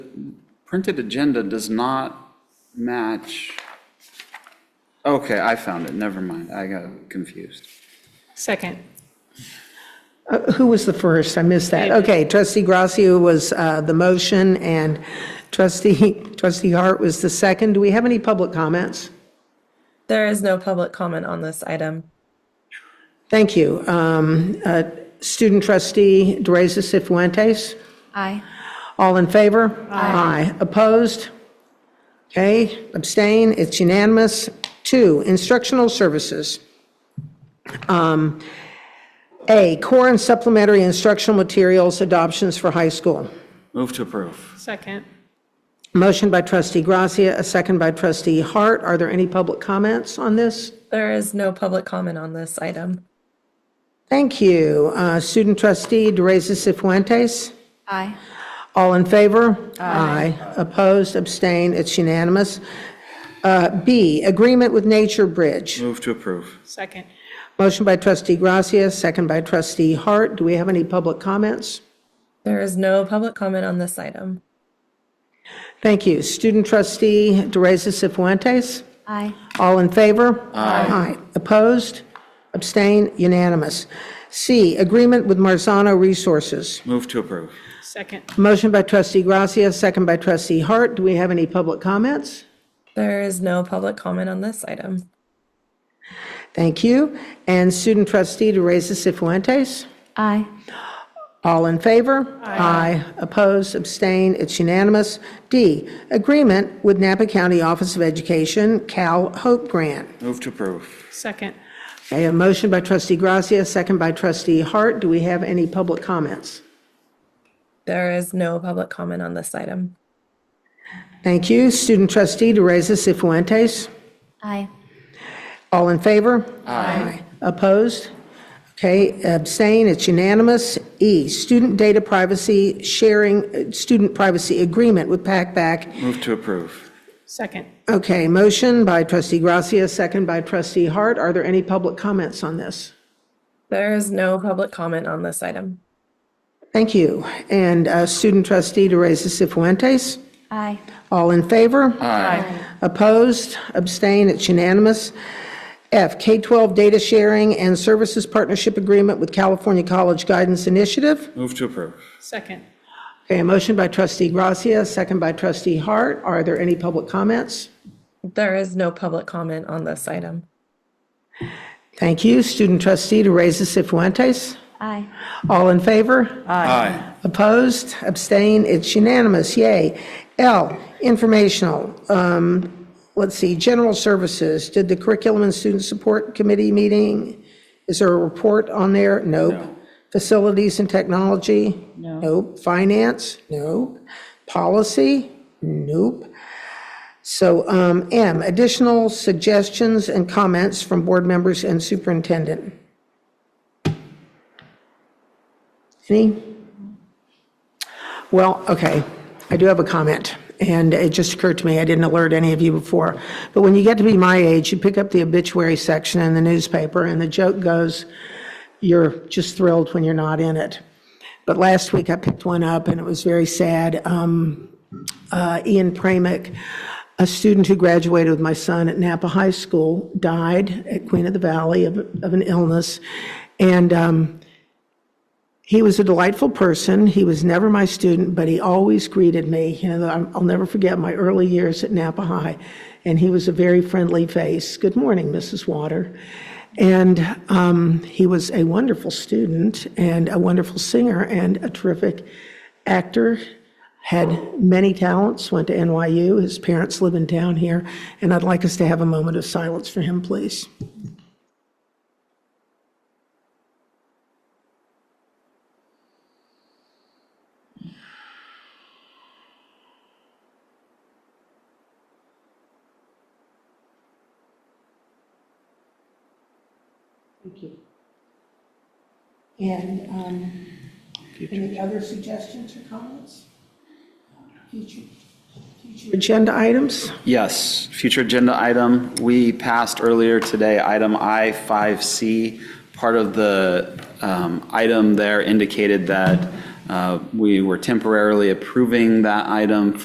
Printed agenda does not match. Okay, I found it, never mind, I got confused. Second. Uh, Who was the first? I missed that. Okay, trustee Gracia was uh, the motion, and trustee, trustee Hart was the second. Do we have any public comments? There is no public comment on this item. Thank you. Um, uh, Student trustee DeRosa Sifuentes, Aye. all in favor? Aye. Opposed? Okay, abstain, it's unanimous. Two, instructional services. Um, A, core and supplementary instructional materials adoptions for high school. Move to approve. Second. Motion by trustee Gracia, a second by trustee Hart. Are there any public comments on this? There is no public comment on this item. Thank you. Uh, Student trustee DeRosa Sifuentes, Aye. all in favor? Aye. Opposed, abstain, it's unanimous. Uh, B, agreement with Nature Bridge. Move to approve. Second. Motion by trustee Gracia, second by trustee Hart. Do we have any public comments? There is no public comment on this item. Thank you. Student trustee DeRosa Sifuentes? Aye. All in favor? Aye. Opposed? Abstain? Unanimous. C, agreement with Marzano Resources. Move to approve. Second. Motion by trustee Gracia, second by trustee Hart. Do we have any public comments? There is no public comment on this item. Thank you. And student trustee DeRosa Sifuentes? Aye. All in favor? Aye. Opposed? Abstain? It's unanimous. D, agreement with Napa County Office of Education, Cal Hope Grant. Move to approve. Second. Okay, a motion by trustee Gracia, second by trustee Hart. Do we have any public comments? There is no public comment on this item. Thank you. Student trustee DeRosa Sifuentes, Aye. all in favor? Aye. Opposed? Okay, abstain, it's unanimous. E, student data privacy sharing, uh, student privacy agreement with PACBAC. Move to approve. Second. Okay, motion by trustee Gracia, second by trustee Hart. Are there any public comments on this? There is no public comment on this item. Thank you. And uh, student trustee DeRosa Sifuentes, Aye. all in favor? Aye. Opposed, abstain, it's unanimous. F, K-12 Data Sharing and Services Partnership Agreement with California College Guidance Initiative. Move to approve. Second. Okay, a motion by trustee Gracia, second by trustee Hart. Are there any public comments? There is no public comment on this item. Thank you. Student trustee DeRosa Sifuentes, Aye. all in favor? Aye. Opposed, abstain, it's unanimous, yay. L, Informational, um, let's see, General Services. Did the Curriculum and Student Support Committee meeting, is there a report on there? Nope. Facilities and Technology? No. Nope. Finance? Nope. Policy? Nope. So um, M, additional suggestions and comments from board members and superintendent. Any? Well, okay, I do have a comment, and it just occurred to me, I didn't alert any of you before, but when you get to be my age, you pick up the obituary section in the newspaper, and the joke goes, you're just thrilled when you're not in it. But last week, I picked one up, and it was very sad. Um, uh, Ian Pramick, a student who graduated with my son at Napa High School, died at Queen of the Valley of of an illness, and um, he was a delightful person. He was never my student, but he always greeted me. You know, I'm- I'll never forget my early years at Napa High, and he was a very friendly face. Good morning, Mrs. Water. And um, he was a wonderful student and a wonderful singer and a terrific actor. Had many talents, went to NYU. His parents live in town here, and I'd like us to have a moment of silence for him, please. And um, any other suggestions or comments? Future future Agenda items? Yes, future agenda item, we passed earlier today, item I5C. Part of the um, item there indicated that uh, we were temporarily approving that item